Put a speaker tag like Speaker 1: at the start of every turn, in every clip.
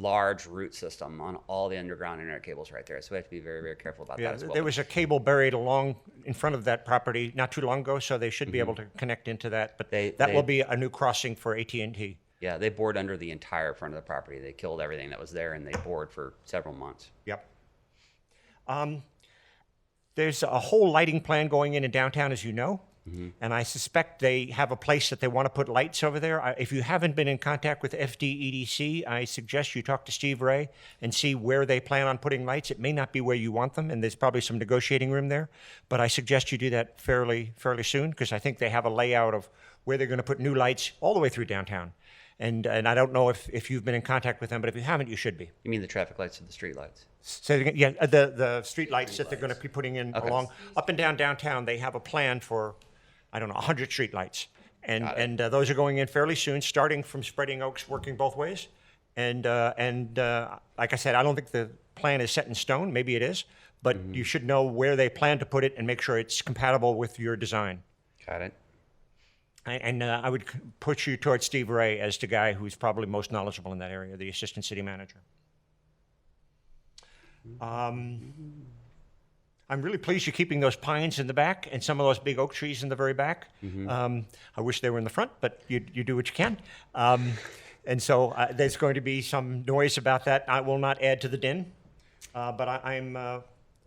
Speaker 1: large root system on all the underground internet cables right there. So we have to be very, very careful about
Speaker 2: Yeah,
Speaker 1: that as well.
Speaker 2: there was a cable buried along in front of that property not too long ago, so they should be able to connect into that. But
Speaker 1: Mm-hmm. They-
Speaker 2: that
Speaker 1: they-
Speaker 2: will be a new crossing for AT and T.
Speaker 1: yeah, they bored under the entire front of the property. They killed everything that was there and they bored for several months.
Speaker 2: Yep. Um, there's a whole lighting plan going in in downtown, as you know, and I suspect they have a place that they want to put lights over there. I, if you haven't been in contact with FDEDC, I suggest you talk to Steve Ray and see where they plan on putting lights. It may not be where you want them, and there's probably some negotiating room there, but I suggest you do that fairly fairly soon because I think they have a layout of where they're going to put new lights all the way through downtown. And, and I don't know if, if you've been in contact with them, but if you haven't, you should be.
Speaker 1: You mean the traffic lights or the street lights?
Speaker 2: So they're gonna- yeah, uh, the the street lights that they're going to be putting in along up and down downtown. They have a plan for, I don't know, hundred street lights, and and uh, those are going in fairly soon, starting from Spreading Oaks, working both ways, and uh, and uh, like I said, I don't think the plan is set in stone. Maybe it is, but you should know where they plan to put it and make sure it's compatible with your design.
Speaker 1: Got it.
Speaker 2: And, and uh, I would c- put you towards Steve Ray as the guy who's probably most knowledgeable in that area, the assistant city manager. Um, I'm really pleased you're keeping those pines in the back and some of those big oak trees in the very back. Um, I wish they were in the front, but you, you do what you can. Um, and so uh, there's going to be some noise about that. I will not add to the din, uh, but I, I'm. Uh,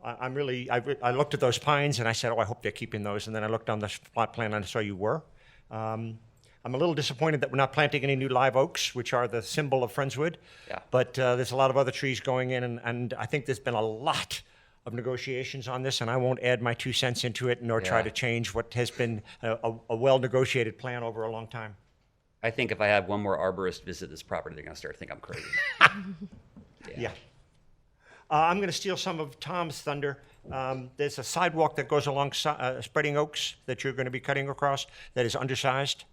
Speaker 2: I- I'm really. I, re- I looked at those pines and I said, "Oh, I hope they're keeping those." And then I looked on the plot plan and I saw you were. Um, I'm a little disappointed that we're not planting any new live oaks, which are the symbol of Friendswood.
Speaker 1: Yeah.
Speaker 2: But uh, there's a lot of other trees going in, and, and I think there's been a lot of negotiations on this, and I won't add my two cents into it nor try
Speaker 1: Yeah.
Speaker 2: to change what has been a, a, a well negotiated plan over a long time.
Speaker 1: I think if I have one more arborist visit this property, they're going to start to think I'm crazy.
Speaker 2: Yeah. Uh, I'm going to steal some of Tom's thunder. Um, there's a sidewalk that goes along si- uh, Spreading Oaks that you're going to be cutting across that is undersized.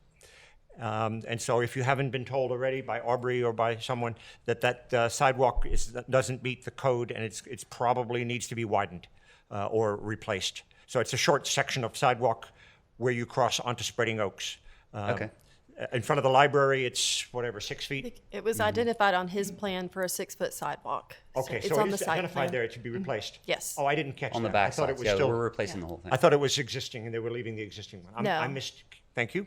Speaker 2: Um, and so, if you haven't been told already by Aubrey or by someone that that uh, sidewalk is, doesn't meet the code and it's it's probably needs to be widened uh, or replaced. So it's a short section of sidewalk where you cross onto Spreading Oaks. Um,
Speaker 1: Okay.
Speaker 2: In front of the library, it's whatever six feet.
Speaker 3: It was identified on his plan for a six-foot sidewalk.
Speaker 2: Mm-hmm. Okay,
Speaker 3: it's
Speaker 2: so
Speaker 3: on
Speaker 2: it
Speaker 3: the
Speaker 2: is
Speaker 3: site
Speaker 2: identified
Speaker 3: plan. Mm-hmm.
Speaker 2: there, it should be replaced?
Speaker 3: Yes.
Speaker 2: Oh, I didn't catch that.
Speaker 1: On the
Speaker 2: I
Speaker 1: back
Speaker 2: thought
Speaker 1: side.
Speaker 2: it was
Speaker 1: yeah,
Speaker 2: still-
Speaker 1: we're replacing the whole thing.
Speaker 2: I thought it was existing and they were leaving the existing one. I'm-
Speaker 3: No.
Speaker 2: I missed, thank you.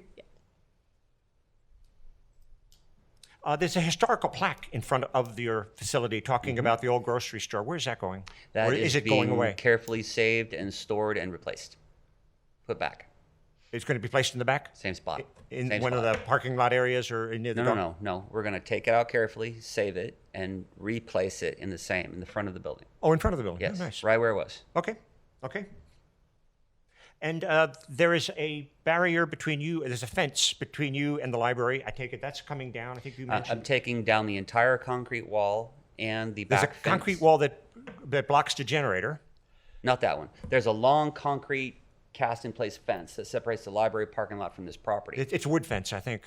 Speaker 2: Uh, there's a historical plaque in front of your facility talking about the old grocery store. Where's that going?
Speaker 1: Mm-hmm. That
Speaker 2: Or
Speaker 1: is
Speaker 2: is it going
Speaker 1: being
Speaker 2: away?
Speaker 1: Carefully saved and stored and replaced. Put back.
Speaker 2: It's going to be placed in the back?
Speaker 1: Same spot.
Speaker 2: In
Speaker 1: Same
Speaker 2: one of
Speaker 1: spot.
Speaker 2: the parking lot areas or in near the
Speaker 1: No, no,
Speaker 2: dock?
Speaker 1: no, no. We're gonna take it out carefully, save it, and replace it in the same in the front of the building.
Speaker 2: Oh, in front of the building? Oh,
Speaker 1: Yes,
Speaker 2: Nice.
Speaker 1: right where it was.
Speaker 2: Okay, okay. And uh, there is a barrier between you, there's a fence between you and the library. I take it that's coming down. I think you
Speaker 1: I,
Speaker 2: mentioned.
Speaker 1: I'm taking down the entire concrete wall and the
Speaker 2: There's a
Speaker 1: back fence.
Speaker 2: concrete wall that, that blocks the generator.
Speaker 1: Not that one. There's a long concrete cast in place fence that separates the library parking lot from this property.
Speaker 2: It, it's a wood fence, I think.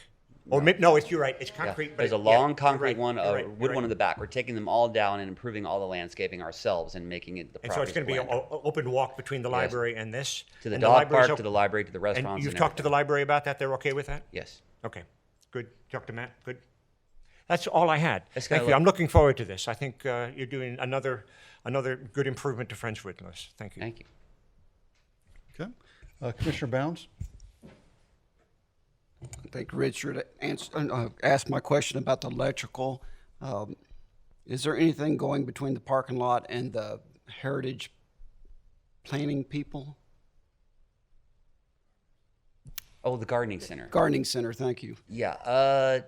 Speaker 2: Or no, no it's, you're right. It's
Speaker 1: Yeah,
Speaker 2: concrete. but
Speaker 1: There's
Speaker 2: it-
Speaker 1: a
Speaker 2: yeah,
Speaker 1: long
Speaker 2: you're
Speaker 1: concrete
Speaker 2: right,
Speaker 1: one,
Speaker 2: you're
Speaker 1: a
Speaker 2: right,
Speaker 1: wood
Speaker 2: you're right.
Speaker 1: one in the back. We're taking them all down and improving all the landscaping ourselves and making it the
Speaker 2: And so it's
Speaker 1: property.
Speaker 2: going to be an open walk between the library and this.
Speaker 1: to the
Speaker 2: and
Speaker 1: dog park,
Speaker 2: library's
Speaker 1: to
Speaker 2: op-
Speaker 1: the library, to the restaurants.
Speaker 2: And you've
Speaker 1: and
Speaker 2: talked to the
Speaker 1: everything.
Speaker 2: library about that? They're okay with that?
Speaker 1: yes.
Speaker 2: Okay, good. Talk to Matt. Good. That's all I had.
Speaker 1: That's
Speaker 2: Thank
Speaker 1: kinda
Speaker 2: you.
Speaker 1: like-
Speaker 2: I'm looking forward to this. I think uh, you're doing another another good improvement to Friendswood, Lewis. Thank you.
Speaker 1: Thank you.
Speaker 4: Okay. Uh, Commissioner Bounds?
Speaker 5: I think Richard answered, uh, asked my question about the electrical. Um, Is there anything going between the parking lot and the heritage planning people?
Speaker 1: Oh, the gardening center.
Speaker 5: Gardening center, thank you.
Speaker 1: Yeah. Uh,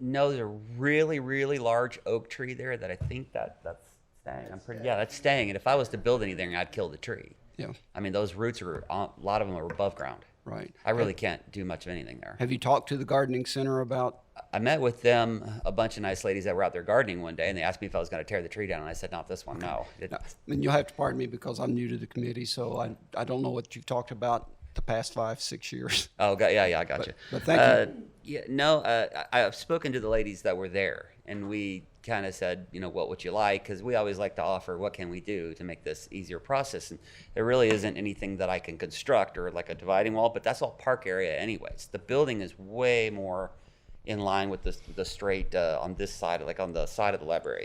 Speaker 1: no, there's a really, really large oak tree there that I think that that's staying. I'm pretty. Yeah, that's staying. And if I was to build anything, I'd kill the tree.
Speaker 5: Yeah,
Speaker 1: I mean, those roots are a lot of them are above ground.
Speaker 5: right.
Speaker 1: I really can't do much of anything there.
Speaker 5: Have you talked to the gardening center about,
Speaker 1: I met with them, a bunch of nice ladies that were out there gardening one day, and they asked me if I was going to tear the tree down, and I said, "Not this one, no." It-
Speaker 5: and you'll have to pardon me because I'm new to the committee, so I, I don't know what you've talked about the past five, six years.
Speaker 1: Oh, got, yeah, yeah, I got you.
Speaker 5: but thank
Speaker 1: uh, you. Yeah, no, uh, I, I've spoken to the ladies that were there, and we kind of said, you know, what would you like? Because we always like to offer, what can we do to make this easier process? And there really isn't anything that I can construct or like a dividing wall, but that's all park area, anyways. The building is way more in line with the, the straight uh, on this side, like on the side of the library.